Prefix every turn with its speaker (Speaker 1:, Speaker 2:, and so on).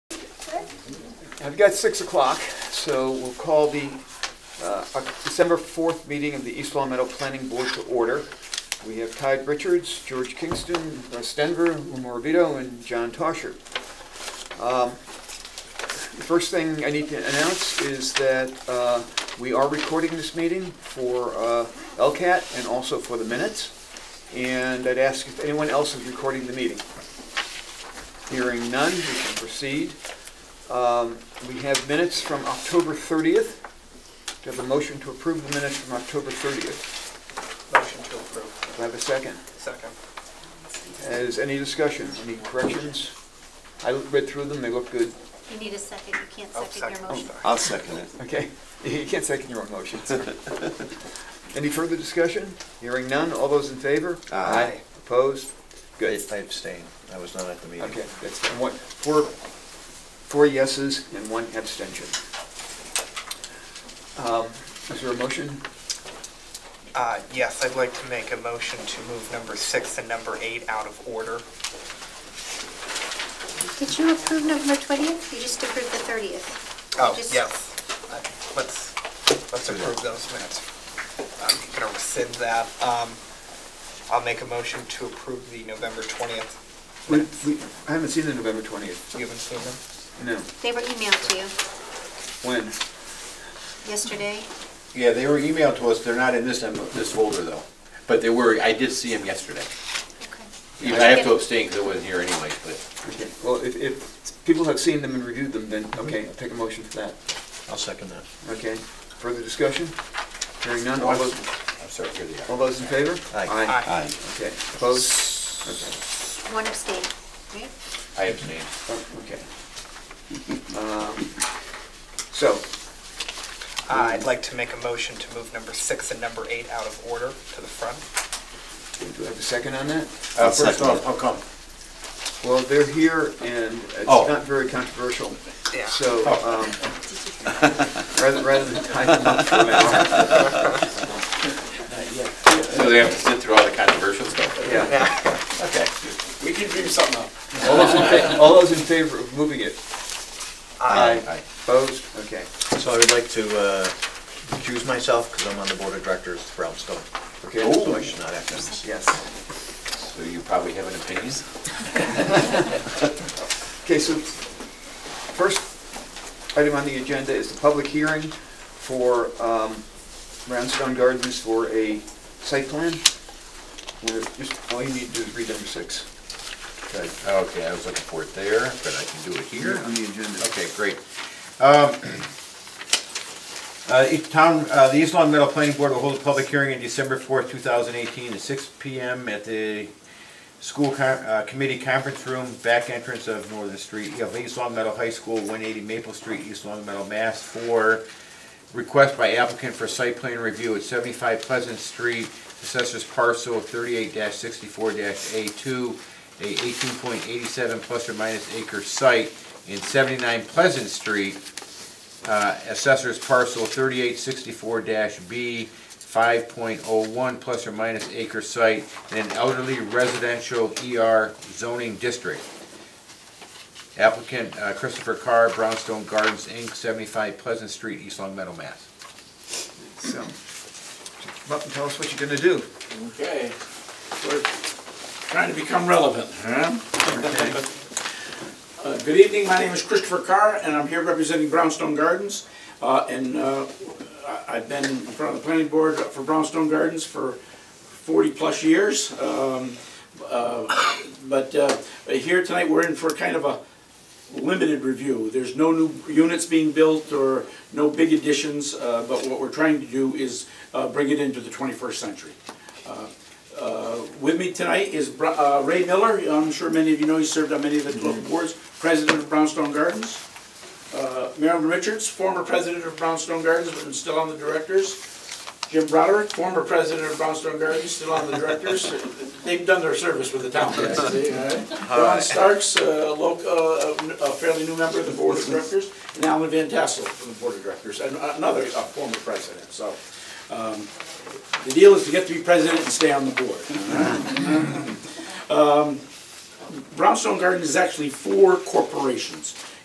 Speaker 1: I've got 6 o'clock, so we'll call the uh, our December 4th meeting of the East Long Meadow Planning Board to order. We have Tide Richards, George Kingston, Russ Denver, Umar Vito, and John Tosher. Um, The first thing I need to announce is that uh, we are recording this meeting for uh, LCAT and also for the minutes. And I'd ask if anyone else is recording the meeting. Hearing none, we can proceed. Um, We have minutes from October 30th. Do I have a motion to approve the minutes from October 30th?
Speaker 2: Motion to approve.
Speaker 1: Do I have a second?
Speaker 2: Second.
Speaker 1: Is any discussion, any corrections? I read through them, they look good.
Speaker 3: You need a second, you can't
Speaker 2: Oh,
Speaker 3: second your
Speaker 2: second.
Speaker 3: motion.
Speaker 4: I'll second it.
Speaker 1: Okay, you can't second your own motion. Any further discussion? Hearing none, all those in favor?
Speaker 4: Aye.
Speaker 1: Opposed? Good.
Speaker 4: I abstain. I was not at the meeting.
Speaker 1: Okay, that's, and one, four, four yeses and one abstention. Um, Is there a motion?
Speaker 2: Uh, Yes, I'd like to make a motion to move number six and number eight out of order.
Speaker 3: Did you approve November 20th? You just approved the 30th.
Speaker 2: Oh,
Speaker 3: Just-
Speaker 2: yes. Uh, Let's, let's
Speaker 4: Do that.
Speaker 2: approve those minutes. I'm going to rescind that. Um, I'll make a motion to approve the November 20th
Speaker 1: We,
Speaker 2: minutes.
Speaker 1: we, I haven't seen the November 20th.
Speaker 2: You haven't seen them?
Speaker 1: No.
Speaker 3: They were emailed to you
Speaker 1: When?
Speaker 3: yesterday.
Speaker 5: Yeah, they were emailed to us, they're not in this, em- this folder though, but they were, I did see them yesterday.
Speaker 3: Okay.
Speaker 5: Even I have to abstain because I wasn't here anyway, but
Speaker 1: Okay, well, if, if people have seen them and reviewed them, then, okay, I'll take a motion for that.
Speaker 4: I'll second that.
Speaker 1: Okay, further discussion? Hearing none, all those,
Speaker 5: I'm sorry, here they
Speaker 1: all
Speaker 5: are.
Speaker 1: those in favor?
Speaker 4: Aye.
Speaker 2: Aye.
Speaker 1: Okay, opposed? Okay.
Speaker 3: One abstain, right?
Speaker 5: I abstain.
Speaker 1: Oh, Okay. Um, So,
Speaker 2: Uh, I'd like to make a motion to move number six and number eight out of order to the front.
Speaker 1: do I have a second on that?
Speaker 5: Uh,
Speaker 4: I'll
Speaker 5: First
Speaker 4: second
Speaker 5: off,
Speaker 4: it.
Speaker 5: how come?
Speaker 1: Well, they're here, and it's
Speaker 5: Oh.
Speaker 1: not very controversial.
Speaker 2: Yeah.
Speaker 1: So, um, rather rather than tie them up for an hour,
Speaker 5: So they have to sit through all the controversial stuff?
Speaker 1: yeah.
Speaker 5: Okay.
Speaker 2: We can dream something up.
Speaker 1: All those in fa- all those in favor of moving it?
Speaker 2: Aye.
Speaker 5: Aye.
Speaker 1: Opposed? Okay.
Speaker 4: So I would like to uh, recuse myself because I'm on the board of directors for Brownstone.
Speaker 1: Okay.
Speaker 4: So I should not act on this.
Speaker 1: Yes.
Speaker 5: So you probably have an opinion?
Speaker 1: Okay, so first item on the agenda is the public hearing for um, Roundstone Gardens for a site plan. We're just- All you need to do is read number six.
Speaker 5: Good. Okay, I was looking for it there, but I can do it here.
Speaker 1: the agenda.
Speaker 5: Okay, great.
Speaker 4: Um, Uh, each town, uh, the East Long Meadow Planning Board will hold a public hearing on December fourth, two thousand eighteen, at six P M. at the school con, uh, committee conference room, back entrance of Northern Street, of East Long Meadow High School, one eighty Maple Street, East Long Meadow, Mass. For request by applicant for site plan review at seventy-five Pleasant Street, assessors parcel thirty-eight sixty-four A two, a eighteen point eighty-seven plus or minus acre site in seventy-nine Pleasant Street, uh, assessors parcel thirty-eight sixty-four B, five point oh one plus or minus acre site in an elderly residential ER zoning district. Applicant uh, Christopher Carr, Brownstone Gardens, Inc., seventy-five Pleasant Street, East Long Meadow, Mass.
Speaker 1: So, come up and tell us what you're gonna do.
Speaker 6: Okay, we're trying to become relevant, huh? Uh, Good evening, my name is Christopher Carr, and I'm here representing Brownstone Gardens. Uh, And uh, I- I've been in front of the planning board for Brownstone Gardens for 40-plus years. Um, uh, But uh, here tonight, we're in for kind of a limited review. There's no new units being built or no big additions, uh, but what we're trying to do is uh, bring it into the 21st century. With me tonight is Br- uh, Ray Miller. I'm sure many of you know, he served on many of the local boards, president of Brownstone Gardens. Uh, Marilyn Richards, former president of Brownstone Gardens, but still on the directors. Jim Broderick, former president of Brownstone Gardens, still on the directors. They've done their service with the town. basically, all right? Ron Starks, a loc- uh, a fairly new member of the board of directors, and Alan Van Tassel from the board of directors, and another uh, former president, so. um, The deal is to get to be president and stay on the board. Brownstone Gardens is actually four corporations.